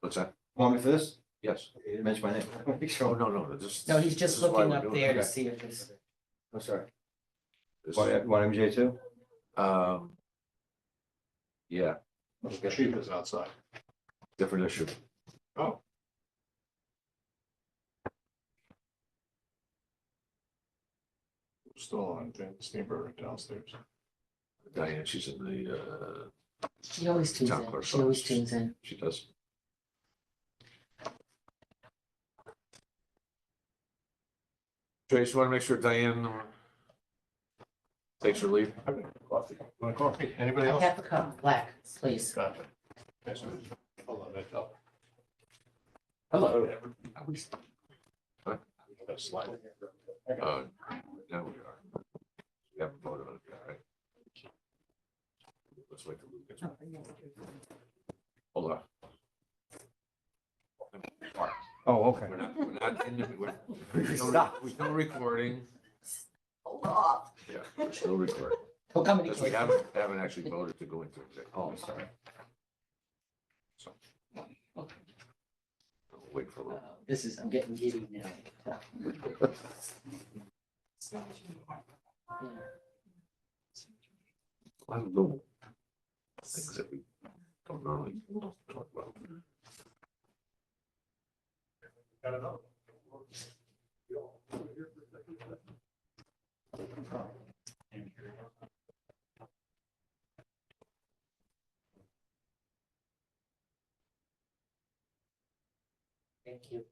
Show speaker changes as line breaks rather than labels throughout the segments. What's that?
Want me for this?
Yes.
You didn't mention my name. Make
Oh,
sure.
no, no, this.
No, he's
this
just
is why
looking
we're
up
doing
there
it.
to see if it's,
I'm sorry.
This
Want
is-
want MJ too?
Um. Yeah,
Okay.
Chief is outside.
different issue.
Oh. Still on Jan- Steinberg downstairs.
Diane, she's in the, uh,
she always tunes
Town
in,
clerk's
she always
office.
tunes in.
she does. Trace, you want to make sure Diane uh, takes her leave?
Coffee. Want coffee? Anybody
I
else?
have a cup, black, please.
Gotcha. Yes, sir. Hold on, that's up.
Hello.
That slide.
Uh, now we are. We haven't voted on it, yet, right? Let's wait till Luke gets back. Hold on.
Oh, okay.
We're not, we're not in the, we're, we're still- we're still recording.
Hold off.
Yeah, we're still recording.
He'll come in.
Because we haven't, haven't actually voted to go into executive.
Oh, I'm sorry.
We'll Wait for a little.
Uh, This is, I'm getting giddy now.
I don't know. Things that we don't normally talk about.
Got it up.
Thank you.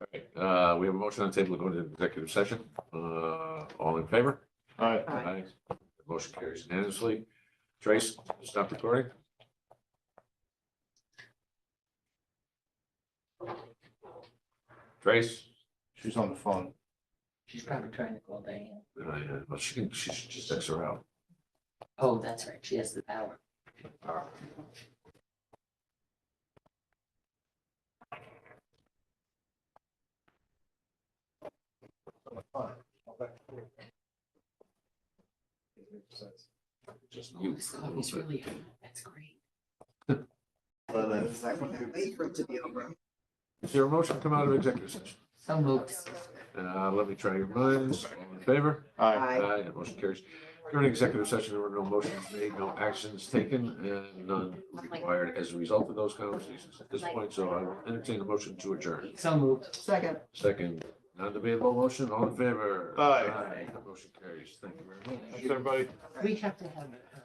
All right, Uh, we have a motion on the table to go into executive session. Uh, all in favor?
All right.
Aye.
Aye. Motion carries unanimously. Trace, stop recording. Trace?
She's on the phone.
She's probably trying to call Diane.
Uh, Well, she can, she should just X her out.
Oh, that's right, she has the power.
Just-
Oh, this coffee's really, hot. that's great.
Well, then-
Wait for it to be over.
Is there a motion to come out of executive session?
So moved.
Uh, let me try your minds. All in favor?
All right.
Aye.
Aye, motion carries. During executive session, there were no motions made, no actions taken, and none required as a result of those conversations at this point, so I will entertain a motion to adjourn.
So moved.
Second.
Second, non-debatable motion, all in favor?
Aye.
Motion carries, thank you very much.
Thanks, everybody.
We have to have uh,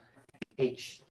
H